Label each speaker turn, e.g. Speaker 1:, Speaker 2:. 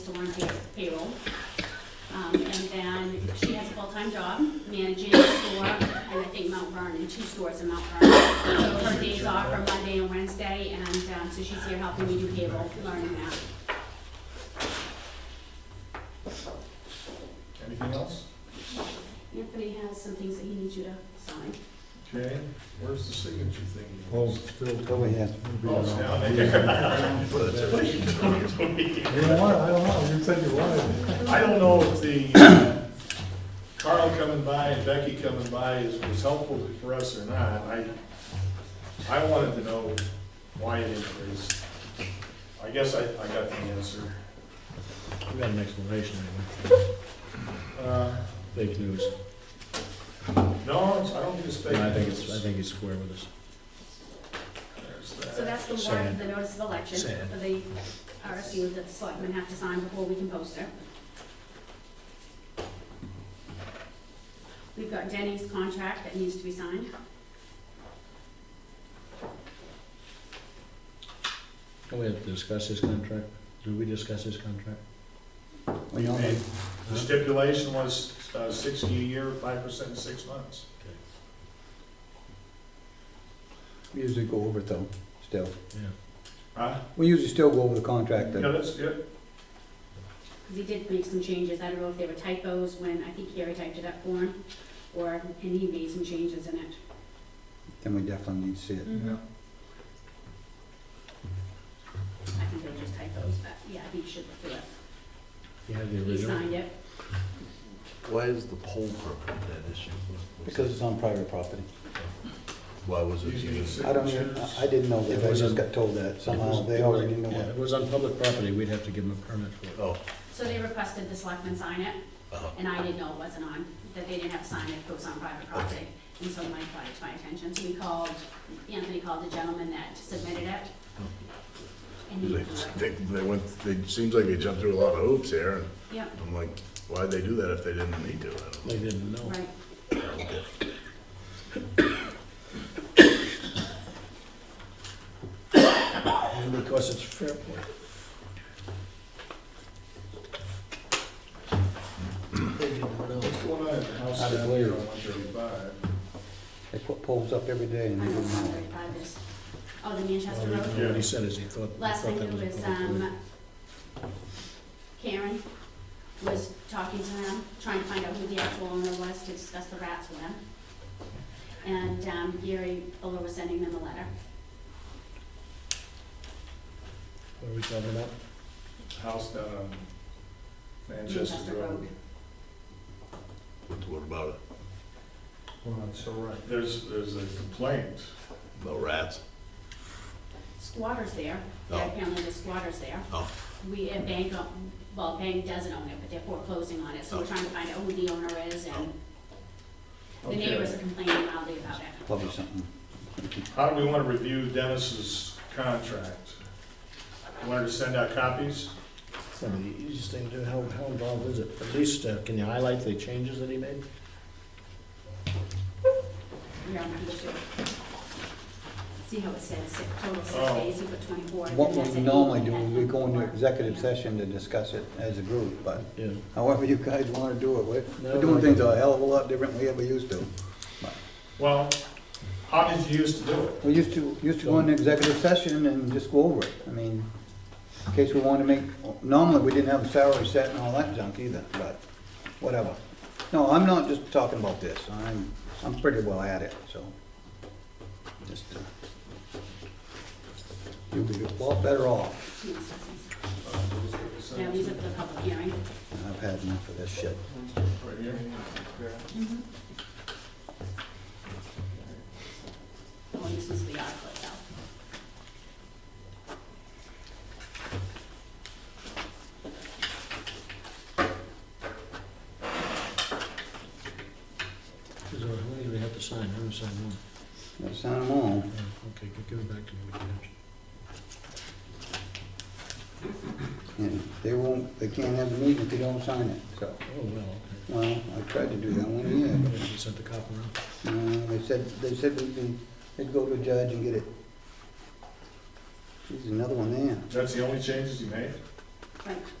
Speaker 1: still on pay- payroll. Um, and then she has a full-time job managing a store, and I think Mount Vernon, two stores in Mount Vernon. So her days off are Monday and Wednesday, and, um, so she's here helping me do payroll, learning that.
Speaker 2: Anything else?
Speaker 1: Anthony has some things that he needs you to sign.
Speaker 2: Okay, where's the signature thing?
Speaker 3: Oh, Phil
Speaker 4: Oh,
Speaker 3: Tully.
Speaker 4: yeah.
Speaker 2: Oh, it's down there.
Speaker 3: You don't want, it, I don't know, you said you wanted. it.
Speaker 2: I don't know if the uh, Carl coming by and Becky coming by is, was helpful for us or not. I, I wanted to know why it increased. I guess I, I got the answer.
Speaker 5: We got an explanation anyway.
Speaker 2: Uh,
Speaker 5: Fake news.
Speaker 2: No, it's- I don't think it's fake.
Speaker 5: No, I think it's, I think he's square with us.
Speaker 2: There's
Speaker 1: So
Speaker 2: that.
Speaker 1: that's the warrant,
Speaker 5: Sad.
Speaker 1: the notice of election,
Speaker 5: Sad.
Speaker 1: for the RSU that the selectmen have to sign before we can post it. We've got Denny's contract that needs to be signed.
Speaker 5: Can we have to discuss his contract? Did we discuss his contract?
Speaker 4: We all
Speaker 2: Hey,
Speaker 4: have-
Speaker 2: The stipulation was uh, sixty a year, five percent in six months.
Speaker 4: we usually go over it though, still.
Speaker 5: Yeah.
Speaker 2: Huh?
Speaker 4: We usually still go over the contract
Speaker 2: Yeah,
Speaker 4: then.
Speaker 2: that's good.
Speaker 1: Because he did make some changes, I don't know if they were typos when, I think Gary typed it up for him, or, and he made some changes in it.
Speaker 4: Then we definitely need to see it.
Speaker 2: Yeah.
Speaker 1: I think they were just typos, but yeah, he should look through it.
Speaker 5: You have the
Speaker 1: He
Speaker 5: original?
Speaker 1: signed it,
Speaker 6: Why is the pole permit that issue?
Speaker 4: Because it's on private property.
Speaker 6: Why was it
Speaker 2: Usually
Speaker 6: even?
Speaker 2: it's
Speaker 4: I don't even,
Speaker 2: signatures.
Speaker 4: I I didn't know
Speaker 5: It
Speaker 4: that, I
Speaker 5: was
Speaker 4: just
Speaker 5: a-
Speaker 4: got told that
Speaker 5: If it
Speaker 4: somehow,
Speaker 5: was-
Speaker 4: they already knew
Speaker 5: Yeah,
Speaker 4: it.
Speaker 5: if it was on public property, we'd have to give him a permit for it.
Speaker 6: Oh,
Speaker 1: so they requested the selectmen sign it,
Speaker 6: uh,
Speaker 1: and I didn't know it wasn't on, that they didn't have a sign that it was on private property. And so Mike brought it to my attention, so we called, Anthony called the gentleman that submitted it. And he,
Speaker 6: they, they- they went, they, seems like they jumped through a lot of hoops here, and
Speaker 1: yeah,
Speaker 6: I'm like, why'd they do that if they didn't need to? I don't know.
Speaker 5: They didn't know.
Speaker 1: right.
Speaker 5: And because it's Fairport. They didn't know.
Speaker 2: What's going on at the house
Speaker 4: Out of
Speaker 2: down
Speaker 4: Blair.
Speaker 2: there on one thirty-five?
Speaker 4: They put poles up every day
Speaker 1: I
Speaker 4: and they
Speaker 1: don't know
Speaker 4: didn't know.
Speaker 1: how to this. Oh, the Manchester
Speaker 5: Well,
Speaker 1: Road?
Speaker 5: he- What he said is he thought, he
Speaker 1: Last I
Speaker 5: thought
Speaker 1: knew
Speaker 5: that was
Speaker 1: was,
Speaker 5: a public road.
Speaker 1: um, Karen was talking to him, trying to find out who the actual owner was to discuss the rats with him. And, um, Gary Fuller was sending them a letter.
Speaker 5: What are we talking about?
Speaker 2: House down on Manchester Road.
Speaker 6: What about it?
Speaker 3: Well, that's all right.
Speaker 2: There's, there's a complaint.
Speaker 6: No rats?
Speaker 1: Squatters there,
Speaker 6: Oh.
Speaker 1: apparently the squatters there.
Speaker 6: Oh,
Speaker 1: We, and Bank, own- well, Bank doesn't own it, but they're foreclosing on it, so we're
Speaker 6: Oh.
Speaker 1: trying to find out who the owner is and the
Speaker 2: Okay.
Speaker 1: neighbors are complaining loudly about it.
Speaker 4: Probably something.
Speaker 2: How do we want to review Dennis's contract? Want her to send out copies?
Speaker 5: It's not the easiest thing to do, how, how involved is it? At least, uh, can you highlight the changes that he made?
Speaker 1: You're on the issue. See how it says six, total six
Speaker 2: Oh.
Speaker 1: days, you put twenty-four. and
Speaker 4: What
Speaker 1: then that's
Speaker 4: we
Speaker 1: an
Speaker 4: normally
Speaker 1: eight,
Speaker 4: do is
Speaker 1: and
Speaker 4: we go into
Speaker 1: four.
Speaker 4: executive
Speaker 1: Yeah.
Speaker 4: session to discuss it as a group, but
Speaker 5: Yeah.
Speaker 4: however you guys wanna do it, we're,
Speaker 5: No,
Speaker 4: we're
Speaker 5: no,
Speaker 4: doing
Speaker 5: no.
Speaker 4: things a hell of a lot different than we ever used to.
Speaker 2: Well, how did you used to do it?
Speaker 4: We used to, used to go into executive session and just go over it, I mean, in case we wanted to make, normally we didn't have a salary set and all that junk either, but whatever. No, I'm not just talking about this, I'm, I'm pretty well at it, so. Just, uh, You'll be a lot better off,
Speaker 1: Now, these are the public hearing.
Speaker 4: I've had enough of this shit.
Speaker 2: Right here?
Speaker 1: Oh, and this is the article itself.
Speaker 5: Is there, what do we have to sign? I haven't signed one.
Speaker 4: Gotta Sign them all.
Speaker 5: Yeah, Okay, gi- give it back to me. what you have.
Speaker 4: And they won't, they can't have a meeting if you don't sign it, so.
Speaker 5: Oh, well, okay.
Speaker 4: Well, I tried to do that one year,
Speaker 5: You
Speaker 4: but,
Speaker 5: guys sent the cop
Speaker 4: uh,
Speaker 5: around.
Speaker 4: they said, they said we'd be, they'd go to a judge and get it. There's another one there.
Speaker 2: That's the only changes you made?
Speaker 1: Right,